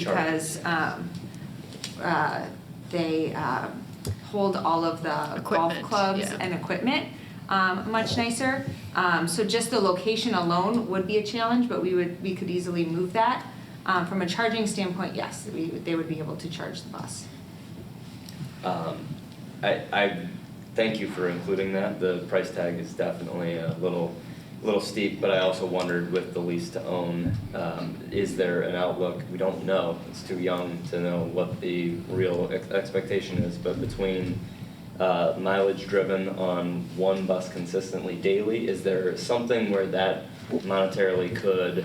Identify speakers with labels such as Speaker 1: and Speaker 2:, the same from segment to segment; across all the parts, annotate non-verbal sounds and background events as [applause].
Speaker 1: Sure.
Speaker 2: because um, uh, they um, hold all of the golf
Speaker 3: Equipment,
Speaker 2: clubs
Speaker 3: yeah.
Speaker 2: and equipment um, much nicer. Um, So just the location alone would be a challenge, but we would, we could easily move that. Um, From a charging standpoint, yes, we, they would be able to charge the bus.
Speaker 1: Um, I, I thank you for including that. The price tag is definitely a little, little steep, but I also wondered with the lease to own, um, is there an outlook? We don't know. It's too young to know what the real ex- expectation is, but between uh, mileage driven on one bus consistently daily, is there something where that monetarily could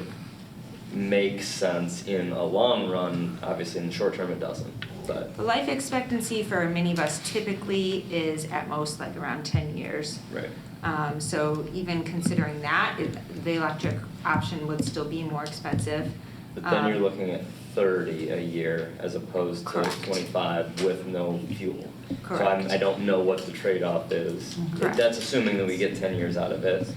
Speaker 1: make sense in a long run? Obviously, in the short term, it doesn't, but.
Speaker 2: The life expectancy for a minibus typically is at most like around 10 years.
Speaker 1: Right.
Speaker 2: Um, so even considering that, it, the electric option would still be more expensive.
Speaker 1: But then you're
Speaker 2: Um,
Speaker 1: looking at thirty a year as opposed to
Speaker 2: Correct.
Speaker 1: twenty-five with no fuel. So I'm,
Speaker 2: Correct.
Speaker 1: I don't know what the trade-off is.
Speaker 4: Mm-hmm.
Speaker 2: Correct.
Speaker 1: That's assuming that we get ten years out of it.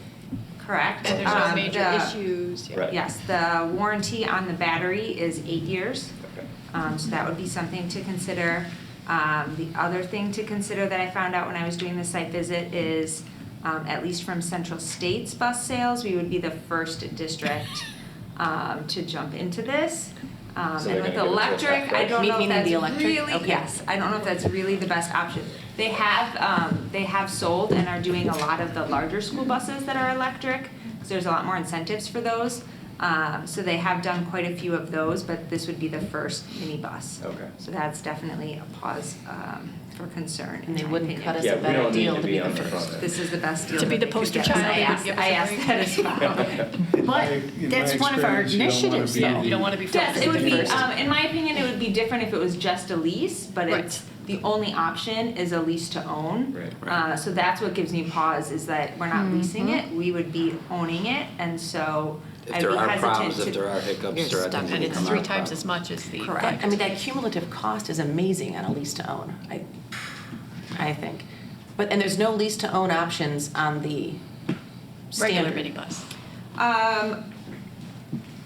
Speaker 2: Correct.
Speaker 3: And there's no
Speaker 2: Um,
Speaker 3: major
Speaker 2: the-
Speaker 3: issues. yeah.
Speaker 1: Right.
Speaker 2: Yes, the warranty on the battery is eight years.
Speaker 1: Okay.
Speaker 2: Um, so that would be something to consider. Um, the other thing to consider that I found out when I was doing the site visit is, um, at least from Central State's bus sales, we would be the first district, um, to jump into this. Um,
Speaker 1: So
Speaker 2: and
Speaker 1: they're
Speaker 2: with
Speaker 1: gonna give it to us
Speaker 2: electric, I
Speaker 1: back,
Speaker 2: don't
Speaker 4: right?
Speaker 2: know if
Speaker 4: Meaning
Speaker 2: that's
Speaker 4: the electric?
Speaker 2: really,
Speaker 4: Okay.
Speaker 2: yes, I don't know if that's really the best option. They have, um, they have sold and are doing a lot of the larger school buses that are electric, because there's a lot more incentives for those. Um, so they have done quite a few of those, but this would be the first mini bus.
Speaker 1: Okay.
Speaker 2: So that's definitely a pause, um, for concern, in
Speaker 4: And they
Speaker 2: my
Speaker 4: wouldn't
Speaker 2: opinion.
Speaker 4: cut us
Speaker 1: Yeah,
Speaker 4: a
Speaker 1: we
Speaker 4: better
Speaker 1: don't need
Speaker 4: deal
Speaker 1: to
Speaker 4: to
Speaker 1: be
Speaker 4: be the
Speaker 1: on the front.
Speaker 4: first.
Speaker 2: This is the
Speaker 1: [laughs]
Speaker 2: best deal
Speaker 3: To be
Speaker 2: that
Speaker 3: the
Speaker 2: they could
Speaker 3: poster
Speaker 2: get.
Speaker 3: child,
Speaker 2: I
Speaker 3: they would
Speaker 2: asked,
Speaker 3: give
Speaker 2: I
Speaker 3: us a
Speaker 2: asked
Speaker 3: ring.
Speaker 2: that as well.
Speaker 4: But
Speaker 5: in my
Speaker 4: that's one of our
Speaker 5: experience, you don't wanna
Speaker 4: initiatives,
Speaker 5: be
Speaker 4: though.
Speaker 5: the-
Speaker 3: You don't want to be first.
Speaker 2: Yes, it would be,
Speaker 3: First.
Speaker 2: um, in my opinion, it would be different if it was just a lease, but
Speaker 3: Right.
Speaker 2: it's, the only option is a lease to own.
Speaker 1: Right.
Speaker 2: Uh, so that's what gives me pause, is that we're not leasing it,
Speaker 3: Mm-hmm.
Speaker 2: we would be owning it, and so
Speaker 6: If
Speaker 2: I'd be
Speaker 6: there are
Speaker 2: hesitant
Speaker 6: problems,
Speaker 2: to.
Speaker 6: if there are
Speaker 4: You're
Speaker 6: hiccups, there are
Speaker 4: stuck
Speaker 6: things that
Speaker 3: And
Speaker 4: in
Speaker 6: can
Speaker 3: it's
Speaker 6: come out.
Speaker 3: three
Speaker 6: of
Speaker 3: times
Speaker 6: that.
Speaker 3: as much as the.
Speaker 2: Correct.
Speaker 4: But, I mean, that cumulative cost is amazing on a lease to own, I, I think. But, and there's no lease to own options on the
Speaker 3: Regular
Speaker 4: standard.
Speaker 3: minibus.
Speaker 2: Um,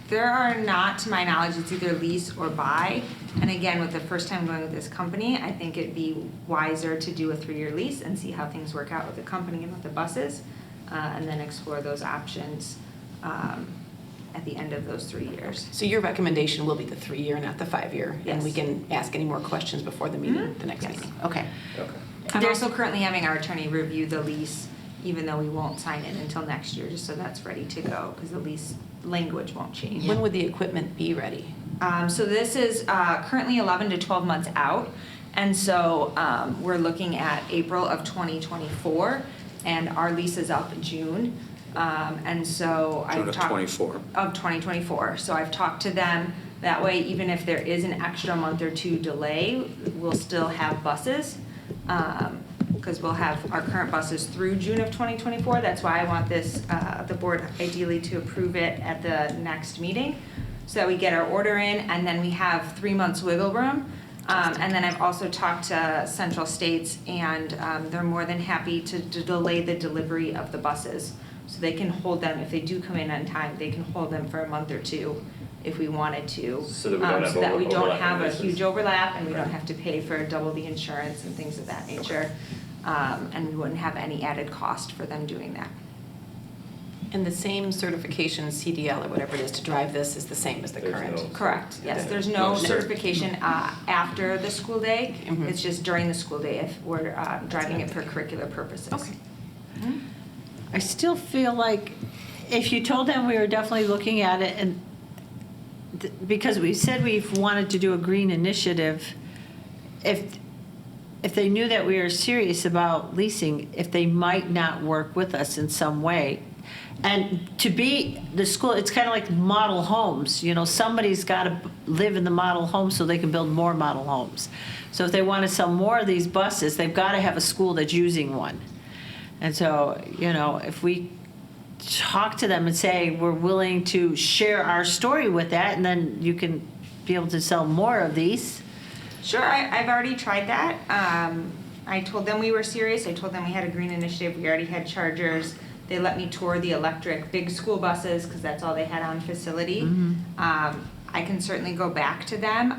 Speaker 2: there are not, to my knowledge, it's either lease or buy. And again, with the first time going with this company, I think it'd be wiser to do a three-year lease and see how things work out with the company and with the buses, uh, and then explore those options, um, at the end of those three years.
Speaker 4: So your recommendation will be the three-year, not the five-year? And we
Speaker 2: Yes.
Speaker 4: can ask any more questions before the meeting,
Speaker 2: Mhm.
Speaker 4: the next
Speaker 2: Yes.
Speaker 4: meeting? Okay.
Speaker 1: Okay.
Speaker 2: I'm also currently having our attorney review the lease, even though we won't sign it until next year, just so that's ready to go, because the lease language won't change.
Speaker 4: When would the equipment be ready?
Speaker 2: Um, so this is uh, currently 11 to 12 months out, and so um, we're looking at April of 2024, and our lease is up in June, um, and so I've
Speaker 6: June of
Speaker 2: talked-
Speaker 6: 24.
Speaker 2: Of 2024. So I've talked to them. That way, even if there is an extra month or two delay, we'll still have buses. Because we'll have our current buses through June of 2024. That's why I want this, uh, the board ideally to approve it at the next meeting. So that we get our order in and then we have three months wiggle room. Um, And then I've also talked to Central States and um, they're more than happy to to delay the delivery of the buses. So they can hold them, if they do come in on time, they can hold them for a month or two if we wanted to.
Speaker 1: So that we don't
Speaker 2: um,
Speaker 1: have
Speaker 2: So that we
Speaker 1: over-
Speaker 2: don't
Speaker 1: overlapping
Speaker 2: have a
Speaker 1: leases.
Speaker 2: huge overlap and we don't
Speaker 1: Right.
Speaker 2: have to pay for double the insurance and things of that nature. Um, And we wouldn't have any added cost for them doing that.
Speaker 4: And the same certification, CDL or whatever it is, to drive this is the same as the
Speaker 1: There's
Speaker 4: current?
Speaker 1: no-
Speaker 2: Correct, yes,
Speaker 1: Yeah.
Speaker 2: there's no
Speaker 1: No cert.
Speaker 2: certification uh, after the school day.
Speaker 4: Mhm.
Speaker 2: It's just during the school day if we're uh, driving it for curricular purposes. Mm-hmm.
Speaker 4: Okay.
Speaker 7: I still feel like if you told them we were definitely looking at it and, th- because we said we've wanted to do a green initiative, if, if they knew that we were serious about leasing, if they might not work with us in some way. And to be the school, it's kind of like model homes, you know, somebody's got to live in the model home so they can build more model homes. So if they want to sell more of these buses, they've got to have a school that's using one. And so, you know, if we talk to them and say, we're willing to share our story with that, and then you can be able to sell more of these.
Speaker 2: Sure, I, I've already tried that. Um, I told them we were serious. I told them we had a green initiative. We already had chargers. They let me tour the electric big school buses because that's all they had on facility. Um, I can certainly go back to them.